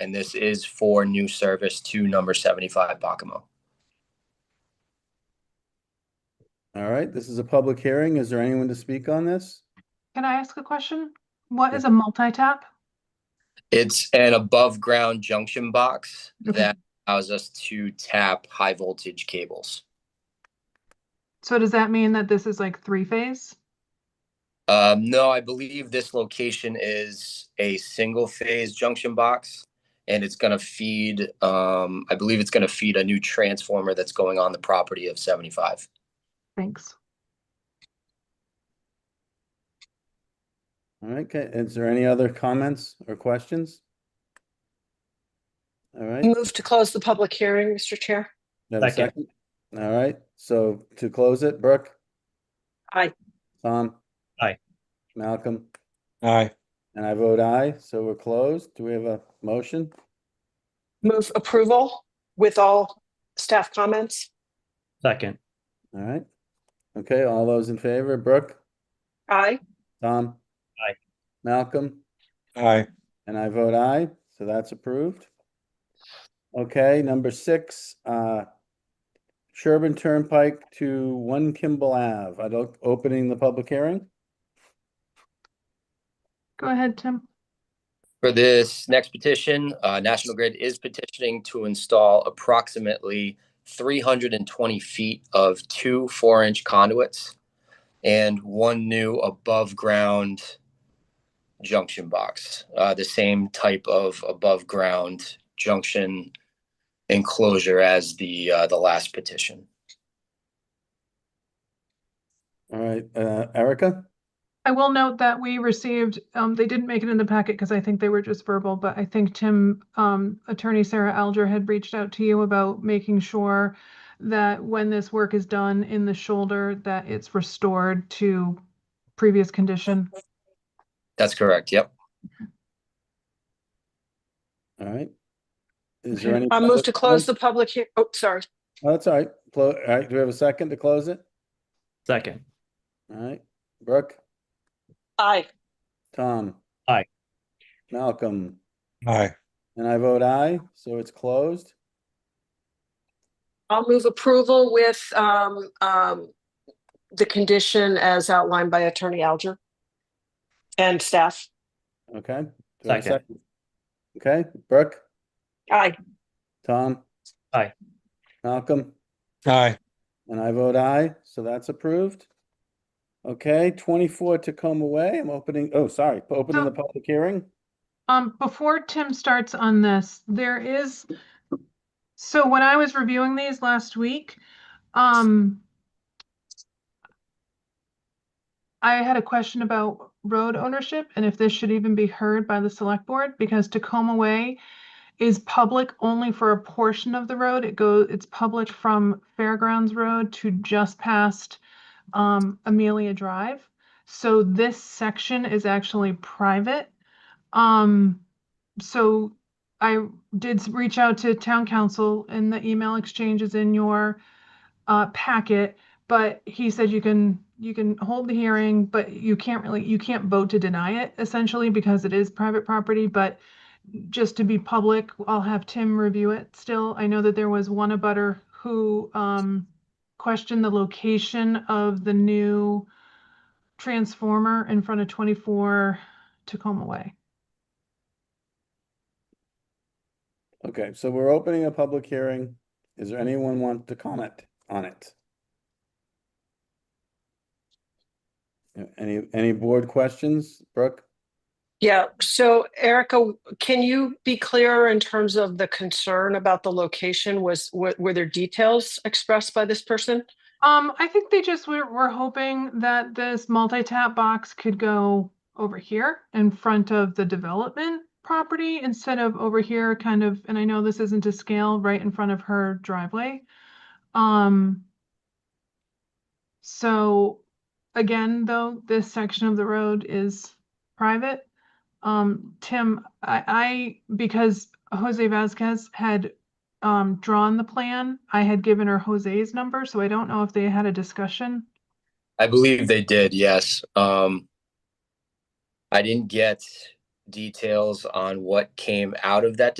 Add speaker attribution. Speaker 1: and this is for new service to number 75 Bacamo.
Speaker 2: All right, this is a public hearing. Is there anyone to speak on this?
Speaker 3: Can I ask a question? What is a multi-tap?
Speaker 1: It's an above ground junction box
Speaker 3: Okay.
Speaker 1: that allows us to tap high voltage cables.
Speaker 3: So does that mean that this is like three-phase?
Speaker 1: Um, no, I believe this location is a single phase junction box and it's going to feed, um, I believe it's going to feed a new transformer that's going on the property of 75.
Speaker 3: Thanks.
Speaker 2: All right, ca- is there any other comments or questions? All right.
Speaker 4: Move to close the public hearing, Mr. Chair.
Speaker 2: Do I have a
Speaker 5: Second.
Speaker 2: second? All right, so to close it, Brooke?
Speaker 4: Aye.
Speaker 2: Tom?
Speaker 5: Aye.
Speaker 2: Malcolm?
Speaker 6: Aye.
Speaker 2: And I vote aye, so we're closed. Do we have a motion?
Speaker 4: Move approval with all staff comments.
Speaker 5: Second,
Speaker 2: All right. Okay, all those in favor, Brooke?
Speaker 4: Aye.
Speaker 2: Tom?
Speaker 5: Aye.
Speaker 2: Malcolm?
Speaker 6: Aye.
Speaker 2: And I vote aye, so that's approved. Okay, number six, uh, Sherburne Turnpike to One Kimball Ave. I'd like opening the public hearing.
Speaker 3: Go ahead, Tim.
Speaker 1: For this next petition, uh, National Grid is petitioning to install approximately three hundred and twenty feet of two four-inch conduits and one new above-ground junction box, uh, the same type of above-ground junction enclosure as the, uh, the last petition.
Speaker 2: All right, uh, Erica?
Speaker 3: I will note that we received, um, they didn't make it in the packet because I think they were just verbal, but I think Tim, um, attorney Sarah Alger had reached out to you about making sure that when this work is done in the shoulder, that it's restored to previous condition.
Speaker 1: That's correct, yep.
Speaker 2: All right. Is there
Speaker 3: Okay.
Speaker 2: any?
Speaker 4: I Uh, move to
Speaker 2: other
Speaker 4: close the
Speaker 2: comment?
Speaker 4: public hea, oh, sorry.
Speaker 2: Oh, That's all right. Clo- All right, do we have a second to close it?
Speaker 5: second,
Speaker 2: All right, Brooke,
Speaker 4: Aye.
Speaker 2: Tom?
Speaker 5: Aye.
Speaker 2: Malcolm?
Speaker 6: Aye.
Speaker 2: And I vote aye, so it's closed.
Speaker 4: I'll move approval with, um, um, the condition as outlined by Attorney Alger and staff.
Speaker 2: Okay. Do I have a
Speaker 5: Second.
Speaker 2: second? Okay, Brooke?
Speaker 4: Aye.
Speaker 2: Tom?
Speaker 5: Aye.
Speaker 2: Malcolm?
Speaker 6: Aye.
Speaker 2: And I vote aye, so that's approved. Okay, twenty-four Tacoma Way, I'm opening, oh, sorry, opening the public hearing.
Speaker 3: Um, before Tim starts on this, there is, so when I was reviewing these last week, um, I had a question about road ownership and if this should even be heard by the select board, because Tacoma Way is public only for a portion of the road. It goes, it's public from Fairgrounds Road to just past, um, Amelia Drive. So this section is actually private. Um, so I did s- reach out to town council and the email exchange is in your uh, packet, but he said you can, you can hold the hearing, but you can't really, you can't vote to deny it essentially because it is private property, but just to be public, I'll have Tim review it still. I know that there was one abutter who um questioned the location of the new transformer in front of 24 Tacoma Way.
Speaker 2: Okay, so we're opening a public hearing. Is there anyone want to comment on it? Uh, Any, any board questions, Brooke?
Speaker 4: Yeah, so Erica, can you be clearer in terms of the concern about the location? Was, were, were there details expressed by this person?
Speaker 3: Um, I think they just were, were hoping that this multi-tap box could go over here in front of the development property instead of over here kind of, and I know this isn't to scale, right in front of her driveway. Um, so again, though, this section of the road is private. Um, Tim, I, I, because Jose Vasquez had um, drawn the plan. I had given her Jose's number, so I don't know if they had a discussion.
Speaker 1: I believe they did, yes. Um, I didn't get details on what came out of that